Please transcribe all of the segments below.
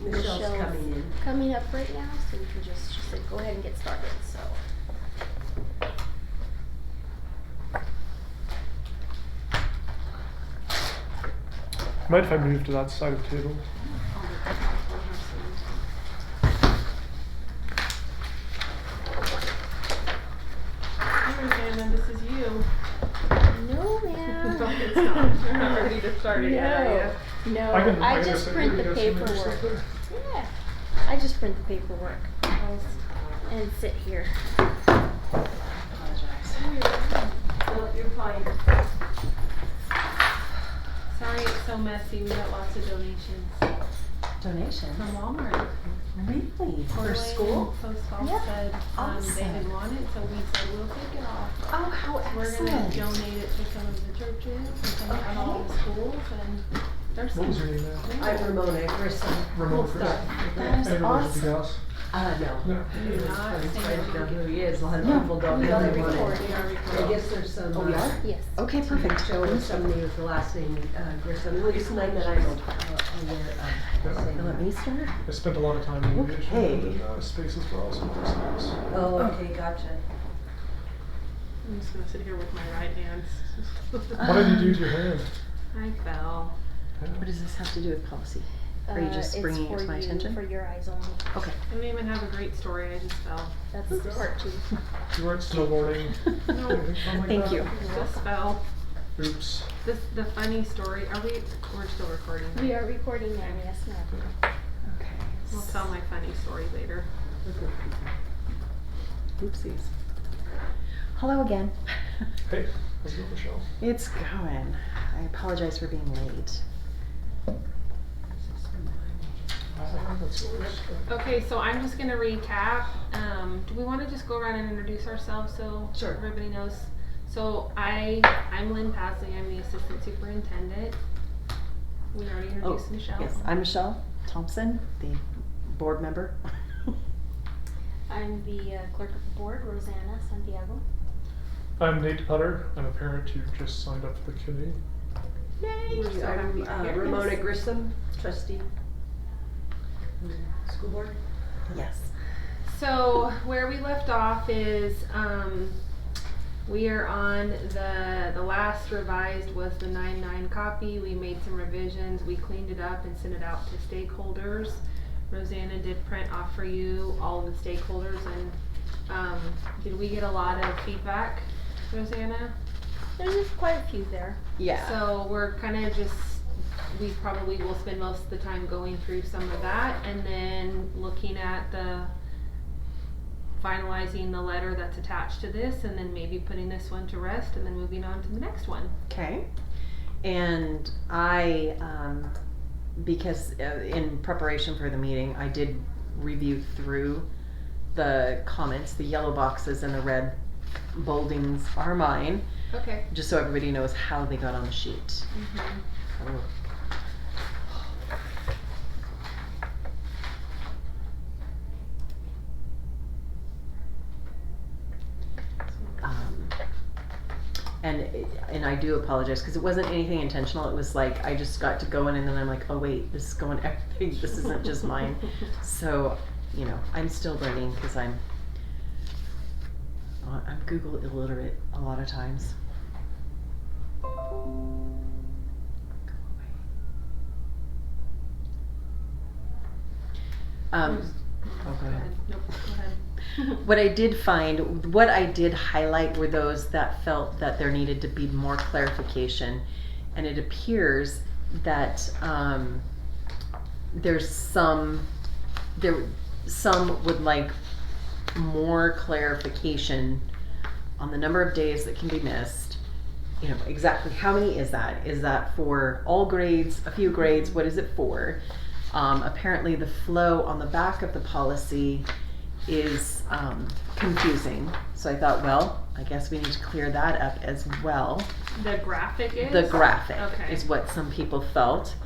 Michelle's coming in. coming up right now, so we can just, she said, go ahead and get started, so. Mind if I move to that side of the table? Hey, Brandon, this is you. No, ma'am. Don't get stopped. You're not ready to start it yet, are No, you? no, I can. Uh, I can just sit print here, the you guys can move paperwork. stuff there. Yeah, I just print the paperwork and sit here. No, you're fine. Sorry it's so messy. We got lots of donations Donations? from Walmart. Really? Toy For school? and Post Yeah. office said, um, they Awesome. didn't want it, so we said, we'll take it off. Oh, how We're gonna excellent. donate it to some of the churches and some of all the Okay. schools and there's What was her some. name? I'm Ramona Grissom. Ramon Cool Chris. stuff. Yeah, is everyone should be awesome. us. Uh, no. No. Do not I'm say trying to know who he is. A lot of No. people don't We know are who he is. recording. We are I recording. guess there's some. Oh, we uh, Yes. Okay, perfect. Show with somebody with the last name uh, Grissom, at least none that I'm uh, aware of. Now Let me start. I spent a lot of time in aviation. Okay. and, uh, spaces were also my space. Oh, okay, gotcha. I'm just gonna sit here with my right hand. Why did you use your hand? I fell. What does this have to do with policy? Are you Uh, just it's bringing it for to my you, attention? For your eyes only. Okay. I didn't even have a great story. I just fell. That's part two. You weren't snowboarding. anything fun like Thank that? you. Just fell. Oops. This the funny story. Are we? We're still recording. We are recording now, yes, ma'am. Okay. We'll tell my funny story later. Oopsies. Hello again. Hey, how's it going, Michelle? It's going. I apologize for being late. Ah, that's yours. Okay, so I'm just gonna recap. Um, do we want to just go around and introduce ourselves so Sure. everybody knows? So I I'm Lynn Pasley. I'm the assistant superintendent. We already introduced Oh, Michelle. Yes, I'm Michelle Thompson, the board member. I'm the uh, clerk of the board, Rosanna Santiago. I'm Nate Putter. I'm a parent who just signed up for the E. committee. We're so happy Um, I'm to uh, hear Ramona this. Grissom, trustee. Mm, School board? Yes. So where we left off is um, we are on the the last revised was the nine nine copy. We made some revisions. We cleaned it up and sent it out to stakeholders. Rosanna did print off for you all the stakeholders and um, did we get a lot of feedback, Rosanna? There's just quite a few there. Yeah. So we're kind of just, we probably will spend most of the time going through some of that and then looking at the, finalizing the letter that's attached to this and then maybe putting this one to rest and then moving on to the next one. Okay. And I, um, because uh, in preparation for the meeting, I did review through the comments. The yellow boxes and the red boldings are mine, Okay. just so everybody knows how they got on the sheet. Um, and it- and I do apologize because it wasn't anything intentional. It was like I just got to go in and then I'm like, oh wait, this is going everything. This isn't just mine. So you know, I'm still learning because I'm uh, I'm Google illiterate a lot of times. Go away. Um, oh, go ahead. Nope, go ahead. What I did find, what I did highlight were those that felt that there needed to be more clarification. And it appears that um, there's some, there, some would like more clarification on the number of days that can be missed. You know, exactly how many is that? Is that for all grades, a few grades? What is it for? Um, apparently, the flow on the back of the policy is um, confusing. So I thought, well, I guess we need to clear that up as well. The graphic is? The graphic Okay. is what some people felt.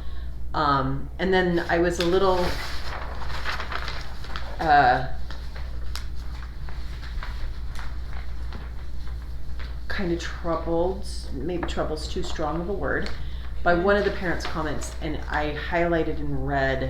Um, and then I was a little. Uh, kind of troubled, maybe trouble's too strong of a word, by one of the parents' comments, and I highlighted in red